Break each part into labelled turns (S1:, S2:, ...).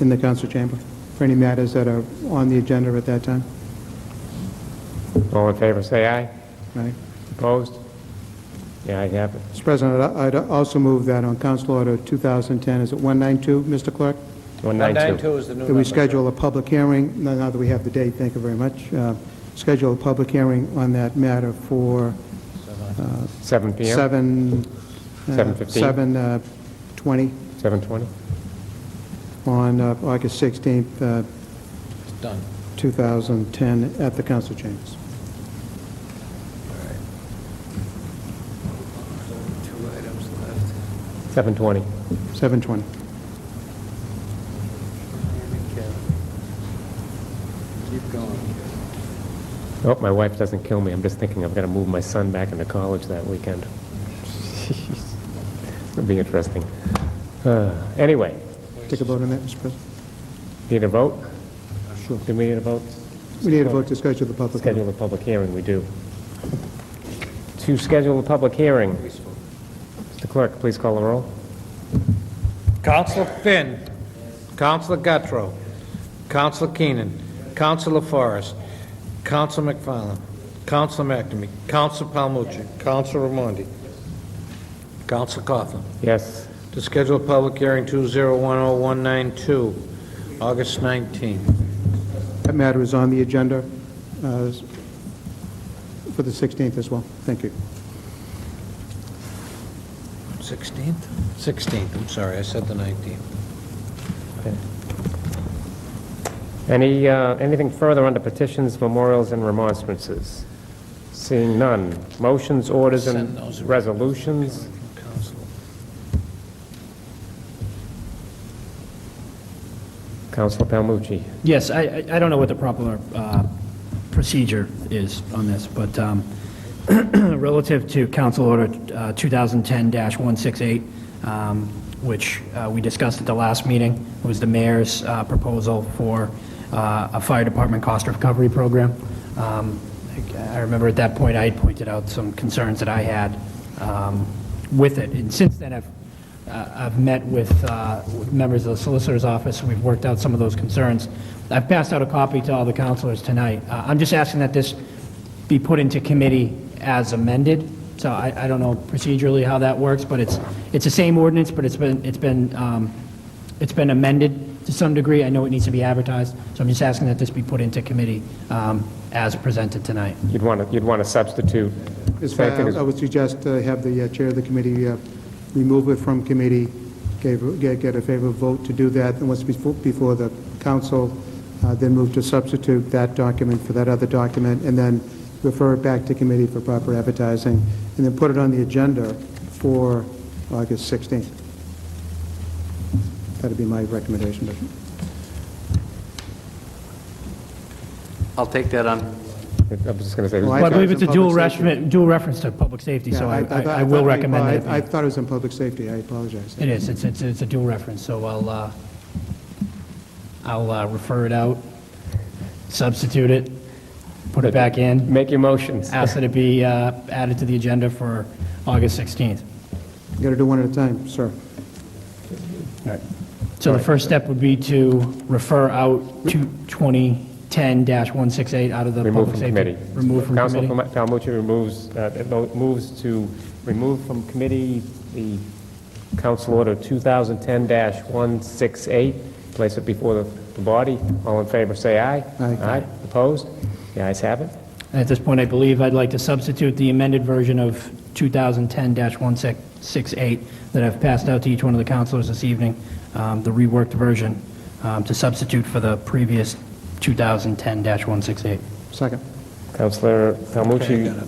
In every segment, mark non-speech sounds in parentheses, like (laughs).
S1: in the council chamber for any matters that are on the agenda at that time.
S2: All in favor, say aye.
S1: Right?
S2: Opposed? Yeah, I have it.
S1: Mr. President, I'd I'd also move that on Council Order 2010, is it 192, Mr. Clerk?
S2: 192.
S3: 192 is the new
S1: That
S3: number.
S1: we
S3: sir.
S1: schedule a public hearing, now now that we have the date, thank you very much, uh, schedule a public hearing on that matter for
S2: 7 PM?
S1: 7... uh,
S2: 7:15?
S1: 7, uh, 20
S2: 7:20?
S1: on uh, August 16th, uh,
S3: It's Done.
S1: 2010, at the council chambers.
S3: Two items left.
S2: 7:20.
S1: 7:20.
S3: Keep going.
S2: I hope my wife doesn't kill me. I'm just thinking I've got to move my son back into college that weekend. (laughs) It'll be interesting. Uh, Anyway,
S1: Take a vote on that, Mr. President.
S2: need a vote?
S1: Sure.
S2: Do we need a vote?
S1: We need a vote to schedule the public hearing.
S2: Schedule a public hearing, we do. To schedule a public hearing, Mr. Clerk, please call the roll.
S3: Counselor Finn. Counselor Gattro. Counselor Keenan. Counselor Forrest. Counselor McFarland. Counselor McNamee. Counselor Palmucci. Counselor Ramondi. Counselor Coughlin.
S2: Yes.
S3: To schedule a public hearing 2010192, August 19.
S1: That matter is on the agenda uh, for the 16th as well. Thank you.
S3: 16th? 16th, I'm sorry, I said the 19th.
S2: Any, uh, anything further under petitions, memorials, and remonstrances? Seeing none. Motions, orders, and
S3: Send those around.
S2: resolutions?
S3: Counselor.
S2: Counselor Palmucci.
S4: Yes, I, I- I don't know what the proper uh, procedure is on this, but um, (clears throat) relative to Council Order uh, 2010-168, um, which uh, we discussed at the last meeting, was the mayor's uh, proposal for uh, a fire department cost recovery program. Um, I I remember at that point, I had pointed out some concerns that I had um, with it, and since then, I've uh, I've met with uh, with members of the Solicitor's Office, and we've worked out some of those concerns. I've passed out a copy to all the counselors tonight. Uh, I'm just asking that this be put into committee as amended, so I I don't know procedurally how that works, but it's, it's the same ordinance, but it's been, it's been, um, it's been amended to some degree. I know it needs to be advertised, so I'm just asking that this be put into committee um, as presented tonight.
S2: You'd want to, you'd want to substitute.
S1: As far-
S2: Thank you.
S1: I would suggest uh, have the uh, chair of the committee uh, remove it from committee, gave- get get a favorable vote to do that, and once befo- before the council, uh, then move to substitute that document for that other document, and then refer it back to committee for proper advertising, and then put it on the agenda for August 16th. That'd be my recommendation.
S5: I'll take that on.
S2: I was just going to
S1: Well,
S2: say,
S4: Well, I believe
S1: thought
S4: it's
S1: it
S4: a
S1: was in
S4: dual
S1: public safety.
S4: reference, dual reference to public safety, so
S1: Yeah,
S4: I
S1: thought-
S4: I- I will
S1: thought-
S4: recommend
S1: I-
S4: that. it be-
S1: I thought it was in public safety, I apologize.
S4: It is, it's, it's, it's a dual reference, so I'll, uh, I'll uh, refer it out, substitute it, put it back in,
S2: make your motions.
S4: ask that it be uh, added to the agenda for August 16th.
S1: You gotta do one at a time, sir.
S4: So the first step would be to refer out to 2010-168 out of the
S2: Remove
S4: public
S2: from
S4: safety.
S2: committee.
S4: Remove from
S2: Counsel
S4: committee.
S2: Palmucci removes, uh, it mo- moves to remove from committee the Council Order 2010-168, place it before the the body. All in favor, say aye.
S1: Aye.
S2: Opposed? The ayes have it.
S4: And at this point, I believe I'd like to substitute the amended version of 2010-168 that I've passed out to each one of the counselors this evening, um, the reworked version, um, to substitute for the previous 2010-168.
S1: Second.
S2: Councilor Palmucci
S3: got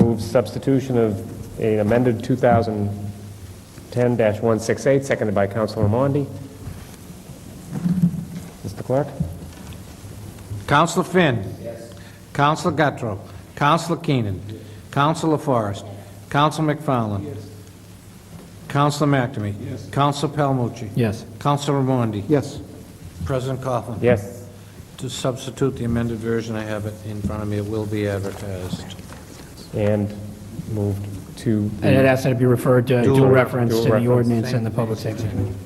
S2: moves substitution of an amended 2010-168, seconded by Councilor Mondi. Mr. Clerk?
S3: Counselor Finn. Yes. Counselor Gattro. Counselor Keenan. Counselor Forrest. Counselor McFarland. Yes. Counselor McNamee. Yes. Counselor Palmucci.
S4: Yes.
S3: Counselor Ramondi.
S1: Yes.
S3: President Coughlin.
S2: Yes.
S3: To substitute the amended version, I have it in front of me, it will be advertised.
S2: And moved to
S4: And
S2: the
S4: I'd ask that it be referred to
S3: Dual-
S4: dual reference
S2: dual
S4: to the
S2: reference.
S4: ordinance and the public safety. committee.